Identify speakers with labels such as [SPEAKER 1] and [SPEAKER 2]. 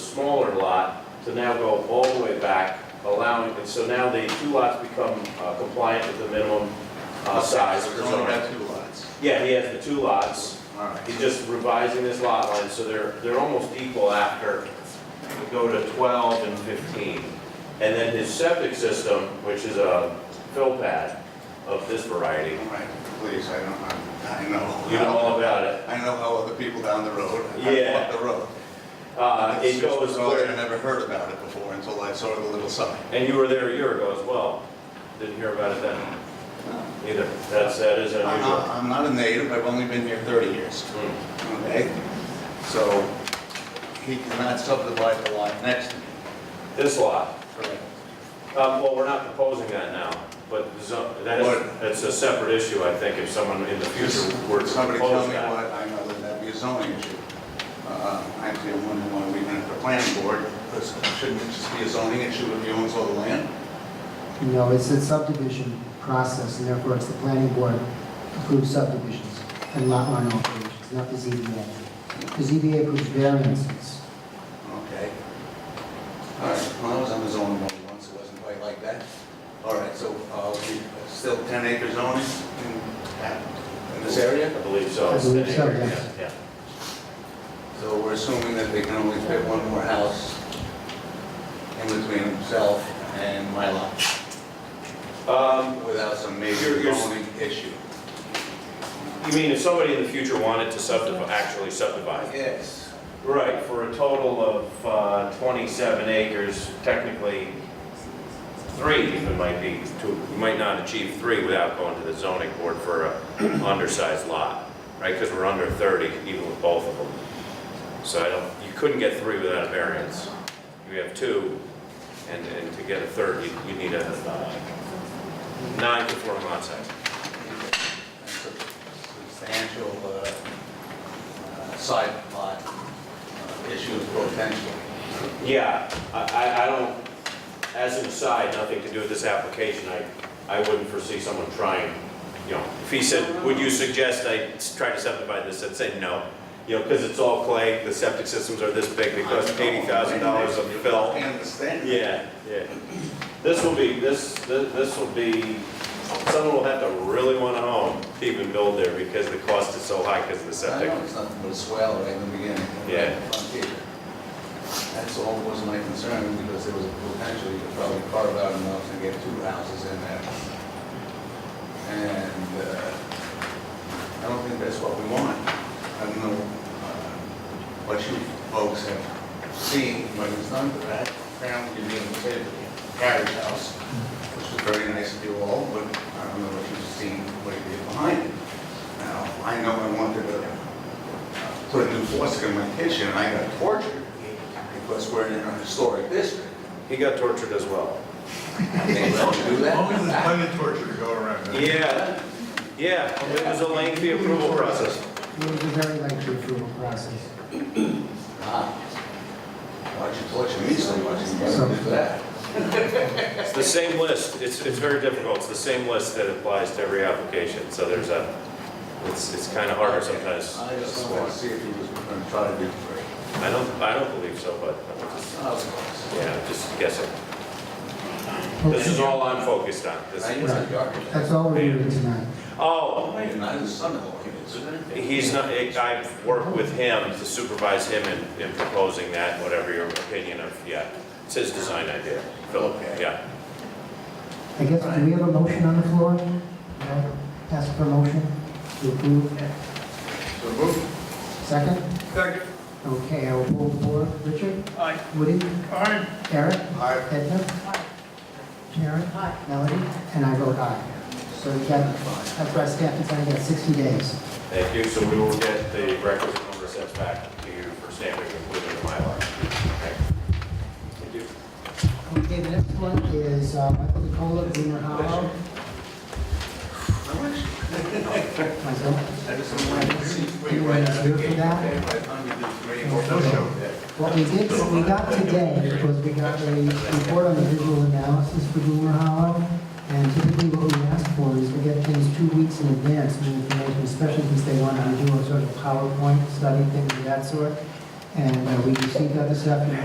[SPEAKER 1] smaller lot to now go all the way back, allowing, and so now the two lots become uh, compliant with the minimum uh, size for
[SPEAKER 2] There's only
[SPEAKER 1] zoning.
[SPEAKER 2] got two lots.
[SPEAKER 1] Yeah, he has the two lots.
[SPEAKER 2] All right.
[SPEAKER 1] He's just revising this lot line, so they're, they're almost equal after we go to 12 and 15. And then his septic system, which is a fill pad of this variety,
[SPEAKER 2] All right, please, I don't, I I know.
[SPEAKER 1] you know all about it.
[SPEAKER 2] I know how other people down the road.
[SPEAKER 1] Yeah.
[SPEAKER 2] I walk the road.
[SPEAKER 1] Uh,
[SPEAKER 2] It's
[SPEAKER 1] It
[SPEAKER 2] just
[SPEAKER 1] goes,
[SPEAKER 2] bizarre, I never heard about it before until I saw the little sign.
[SPEAKER 1] and you were there a year ago as well. Didn't hear about it then
[SPEAKER 2] Uh,
[SPEAKER 1] either. That's, that is
[SPEAKER 2] I'm
[SPEAKER 1] unusual.
[SPEAKER 2] not- I'm not a native, I've only been here 30 years.
[SPEAKER 1] Hmm.
[SPEAKER 2] Okay, so he cannot subdivide the lot next to me.
[SPEAKER 1] This lot,
[SPEAKER 2] Correct.
[SPEAKER 1] Um, well, we're not proposing that now, but the zo- that is,
[SPEAKER 2] What?
[SPEAKER 1] that's a separate issue, I think, if someone in the future were to
[SPEAKER 2] Somebody tell
[SPEAKER 1] propose
[SPEAKER 2] me
[SPEAKER 1] that.
[SPEAKER 2] what, I know that that'd be a zoning issue. Uh, Actually, I'm wondering why we even have the planning board, because shouldn't it just be a zoning issue if he owns all the land?
[SPEAKER 3] No, it's a subdivision process, and therefore it's the planning board approves subdivisions and lot line alterations, not the ZBA. The ZBA approves variances.
[SPEAKER 2] Okay. All right, well, I was on the zoning board once, it wasn't quite like that. All right, so uh, we- still 10 acre zoning in that- in this area?
[SPEAKER 1] I believe so.
[SPEAKER 3] I believe
[SPEAKER 1] It's
[SPEAKER 3] so,
[SPEAKER 1] an acre,
[SPEAKER 3] yes.
[SPEAKER 1] yeah, yeah.
[SPEAKER 2] So we're assuming that they can only fit one more house in between himself and my lot
[SPEAKER 1] Um,
[SPEAKER 2] without some
[SPEAKER 1] You're-
[SPEAKER 2] major
[SPEAKER 1] you're-
[SPEAKER 2] zoning issue.
[SPEAKER 1] You mean if somebody in the future wanted to subdivide, actually subdivide?
[SPEAKER 2] Yes.
[SPEAKER 1] Right, for a total of uh, 27 acres, technically, three even might be, two- you might not achieve three without going to the zoning board for an undersized lot, right? Because we're under 30 even with both of them. So I don't, you couldn't get three without a variance. You have two, and, and to get a third, you, you need a uh, non-conforming lot size.
[SPEAKER 2] That's a Substantial uh, uh, side lot uh, issue potentially.
[SPEAKER 1] Yeah, I- I, I don't, as an aside, nothing to do with this application, I, I wouldn't foresee someone trying, you know, if he said, would you suggest I s- try to subdivide this, I'd say no. You know, because it's all clay, the septic systems are this big, they cost eighty thousand dollars of fill.
[SPEAKER 2] I understand.
[SPEAKER 1] Yeah, yeah. This will be, this, thi- this will be, someone will have to really want to own to even build there because the cost is so high because of the
[SPEAKER 2] I
[SPEAKER 1] septic.
[SPEAKER 2] know it's nothing but a swell right in the beginning.
[SPEAKER 1] Yeah.
[SPEAKER 2] Frontier. That's all was my concern, because there was a potential, you could probably carve out enough to get two houses in there. And uh, I don't think that's what we want. I don't know uh, what you folks have seen, but it's not that apparently you're being saved the carriage house, which was very nice of you all, but I don't know what you've seen, what you did behind it. Now, I know I wanted to put a new faucet in my kitchen, and I got tortured because we're in a historic district.
[SPEAKER 1] He got tortured as well.
[SPEAKER 2] They let me do
[SPEAKER 4] Always there's
[SPEAKER 2] that.
[SPEAKER 4] plenty of torture to go around. man.
[SPEAKER 1] Yeah, yeah, it was a lengthy approval process.
[SPEAKER 3] It was a very lengthy approval process.
[SPEAKER 2] Ah, Why'd you torture me so much? You gotta do that.
[SPEAKER 1] It's the same list, it's, it's very difficult, it's the same list that applies to every application, so there's a, it's, it's kind of harder sometimes.
[SPEAKER 2] I just wanted to see if he was gonna try to do three.
[SPEAKER 1] I don't, I don't believe so, but, I'm just- yeah, I'm just guessing. This is all I'm focused on, this
[SPEAKER 2] I
[SPEAKER 1] is,
[SPEAKER 2] was the architect.
[SPEAKER 3] That's all we're doing tonight.
[SPEAKER 1] oh,
[SPEAKER 2] And I was son-in-law, isn't it?
[SPEAKER 1] he's not, I've worked with him to supervise him in, in proposing that, whatever your opinion of, yeah. It's his design idea, Philip, yeah.
[SPEAKER 3] I guess, do we have a motion on the floor? Can I Ask for a motion to approve.
[SPEAKER 2] So move.
[SPEAKER 3] Second?
[SPEAKER 4] Second.
[SPEAKER 3] Okay, I will pull the board. Richard?
[SPEAKER 4] Aye.
[SPEAKER 3] Woody?
[SPEAKER 4] Aye.
[SPEAKER 3] Eric?
[SPEAKER 2] Aye.
[SPEAKER 3] Edna? Karen? Melody? And I vote aye. So you got, that's why staff is going to get 60 days.
[SPEAKER 1] Thank you, so we will get the records number sets back to you for stamping including the Mylar. Okay. Thank you.
[SPEAKER 3] Okay, the next one is uh, Michael DeCola, Greener Hollow.
[SPEAKER 2] I wish.
[SPEAKER 3] Myself.
[SPEAKER 2] I just wanted to see where you
[SPEAKER 3] You
[SPEAKER 2] were at.
[SPEAKER 3] want to do it for that?
[SPEAKER 2] Okay, By the time you do three,
[SPEAKER 3] No
[SPEAKER 2] we'll
[SPEAKER 3] show.
[SPEAKER 2] Yeah.
[SPEAKER 3] What we did, what we got today was we got a report on the visual analysis for Greener Hollow. And typically what we ask for is we get things two weeks in advance, new information, especially since they want to do a sort of PowerPoint study, things of that sort. And uh, we received that this afternoon.